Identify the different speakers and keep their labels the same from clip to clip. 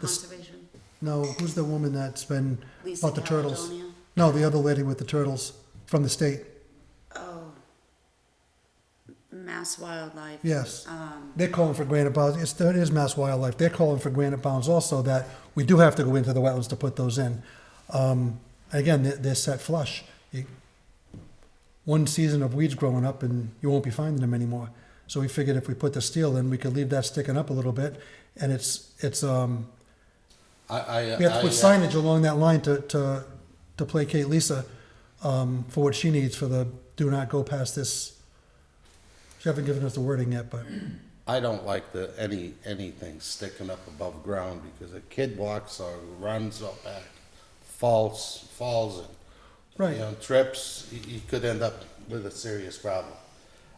Speaker 1: This-
Speaker 2: Conservation,
Speaker 1: No, who's the woman that's been,
Speaker 2: Lisa
Speaker 1: About the turtles.
Speaker 2: Caledonia.
Speaker 1: no, the other lady with the turtles from the state.
Speaker 2: Oh. Mass Wildlife.
Speaker 1: Yes.
Speaker 2: Um,
Speaker 1: They're calling for granite bounds. It's, it is Mass Wildlife. They're calling for granite bounds also that we do have to go into the wetlands to put those in. Um, again, they're, they're set flush. You, one season of weeds growing up and you won't be finding them anymore. So we figured if we put the steel in, we could leave that sticking up a little bit. And it's, it's, um,
Speaker 3: I, I,
Speaker 1: we have to
Speaker 3: I,
Speaker 1: put
Speaker 3: uh,
Speaker 1: signage along that line to, to, to placate Lisa, um, for what she needs for the do not go past this. She haven't given us the wording yet, but
Speaker 3: I don't like the, any, anything sticking up above ground because a kid walks or runs up back, falls, falls and,
Speaker 1: Right.
Speaker 3: you know, trips, you, you could end up with a serious problem.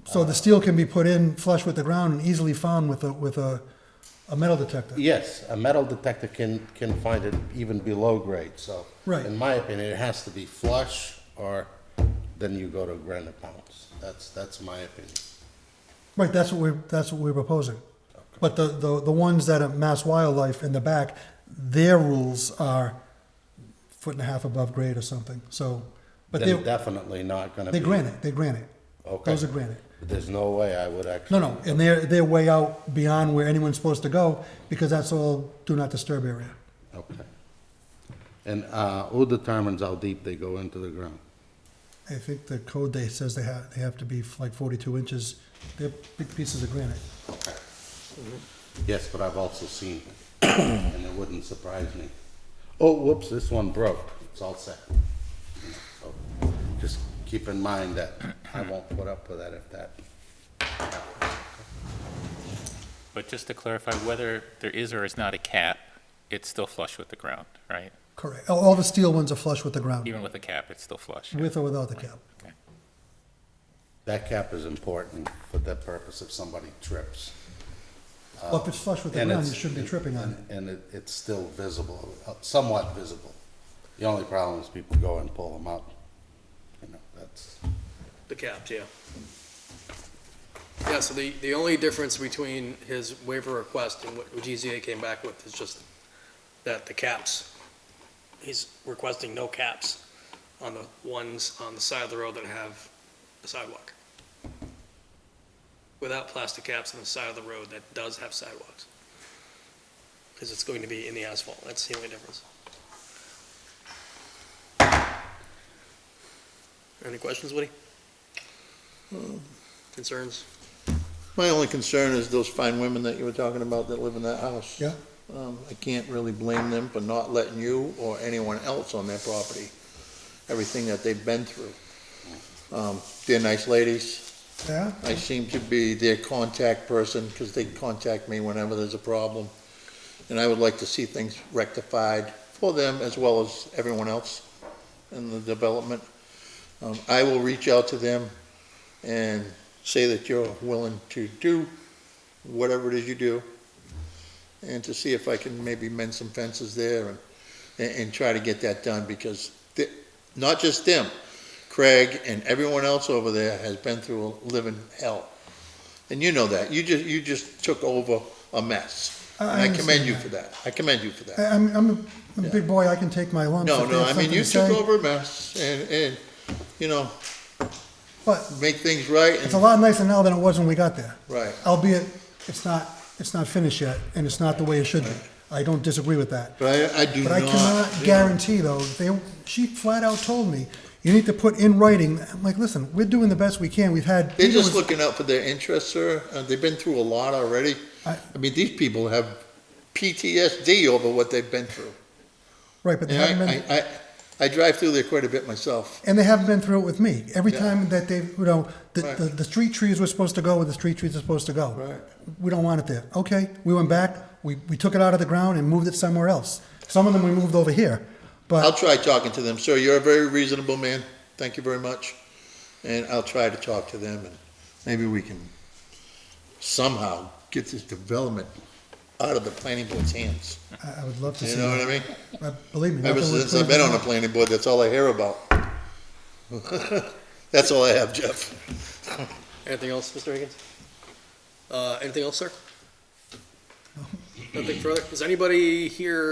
Speaker 1: So
Speaker 3: Uh.
Speaker 1: the steel can be put in flush with the ground and easily found with a, with a, a metal detector.
Speaker 3: Yes, a metal detector can, can find it even below grade, so.
Speaker 1: Right.
Speaker 3: In my opinion, it has to be flush or then you go to granite pounds. That's, that's my opinion.
Speaker 1: Right, that's what we're, that's what we're proposing. But the, the, the ones that are Mass Wildlife in the back, their rules are foot and a half above grade or something, so, but
Speaker 3: Then
Speaker 1: they're,
Speaker 3: definitely not gonna be.
Speaker 1: they're granite, they're granite.
Speaker 3: Okay.
Speaker 1: Those are granite.
Speaker 3: There's no way I would
Speaker 1: No,
Speaker 3: actually.
Speaker 1: no, and they're, they're way out beyond where anyone's supposed to go, because that's all do not disturb area.
Speaker 3: Okay. And uh, who determines how deep they go into the ground?
Speaker 1: I think the code they says they have, they have to be like forty-two inches, they're big pieces of granite.
Speaker 3: Yes, but I've also seen it, and it wouldn't surprise me. Oh, whoops, this one broke. It's all set. So Just keep in mind that I won't put up with that if that,
Speaker 4: But just to clarify, whether there is or is not a cap, it's still flush with the ground, right?
Speaker 1: Correct. All- All the steel ones are flush with the ground,
Speaker 4: Even with a cap, it's still flush.
Speaker 1: with or without the cap.
Speaker 4: Okay.
Speaker 3: that cap is important for the purpose if somebody trips.
Speaker 1: Well, if it's flush with the
Speaker 3: And
Speaker 1: ground, you
Speaker 3: it's-
Speaker 1: shouldn't be tripping on it.
Speaker 3: And it, it's still visible, uh, somewhat visible. The only problem is people go and pull them up. You know, that's,
Speaker 5: The caps, yeah. Yeah, so the, the only difference between his waiver request and what GZA came back with is just that the caps, he's requesting no caps on the ones on the side of the road that have a sidewalk. Without plastic caps on the side of the road that does have sidewalks. Because it's going to be in the asphalt, that's the only difference. Any questions, Woody? Concerns?
Speaker 6: My only concern is those fine women that you were talking about that live in that house.
Speaker 1: Yeah.
Speaker 6: Um, I can't really blame them for not letting you or anyone else on their property, everything that they've been through. Um, they're nice ladies.
Speaker 1: Yeah?
Speaker 6: I seem to be their contact person because they contact me whenever there's a problem. And I would like to see things rectified for them as well as everyone else in the development. Um, I will reach out to them and say that you're willing to do whatever it is you do and to see if I can maybe mend some fences there and, and, and try to get that done because the, not just them, Craig and everyone else over there has been through a living hell. And you know that. You just, you just took over a mess.
Speaker 1: I-
Speaker 6: And
Speaker 1: I
Speaker 6: I commend
Speaker 1: understand
Speaker 6: you
Speaker 1: that.
Speaker 6: for that. I commend you for that.
Speaker 1: I- I'm, I'm a- I'm a big boy, I can take my lumps.
Speaker 6: No,
Speaker 1: if they
Speaker 6: no,
Speaker 1: have
Speaker 6: I mean,
Speaker 1: something
Speaker 6: you
Speaker 1: to
Speaker 6: took
Speaker 1: say,
Speaker 6: over a mess and, and, you know,
Speaker 1: But
Speaker 6: make things right
Speaker 1: it's a
Speaker 6: and,
Speaker 1: lot nicer now than it was when we got there.
Speaker 6: right.
Speaker 1: Albeit, it's not, it's not finished yet, and it's not the way it should be. I don't disagree with that.
Speaker 6: But I, I do
Speaker 1: But
Speaker 6: not.
Speaker 1: I cannot guarantee, though, they, she flat out told me, you need to put in writing, I'm like, listen, we're doing the best we can, we've had.
Speaker 6: They're
Speaker 1: Peter
Speaker 6: just
Speaker 1: was-
Speaker 6: looking out for their interests, sir. Uh, they've been through a lot already.
Speaker 1: I-
Speaker 6: I mean, these people have PTSD over what they've been through.
Speaker 1: Right, but they haven't
Speaker 6: And
Speaker 1: been.
Speaker 6: I, I, I, I drive through there quite a bit myself.
Speaker 1: And they haven't been through it with me. Every
Speaker 6: Yeah.
Speaker 1: time that they, you know, the,
Speaker 6: Right.
Speaker 1: the, the street trees were supposed to go where the street trees are supposed to go.
Speaker 6: Right.
Speaker 1: We don't want it there. Okay, we went back, we, we took it out of the ground and moved it somewhere else. Some of them we moved over here,
Speaker 6: I'll
Speaker 1: but
Speaker 6: try talking to them, sir. You're a very reasonable man. Thank you very much. And I'll try to talk to them and maybe we can somehow get this development out of the planning board's hands.
Speaker 1: I, I would love to see.
Speaker 6: You know what I mean?
Speaker 1: mean? believe me.
Speaker 6: Ever
Speaker 1: nothing would
Speaker 6: since I've been on the planning board, that's all I hear about. That's all I have, Jeff.
Speaker 5: Anything else, Mr. Higgins? Uh, anything else, sir? Nothing further? Is anybody here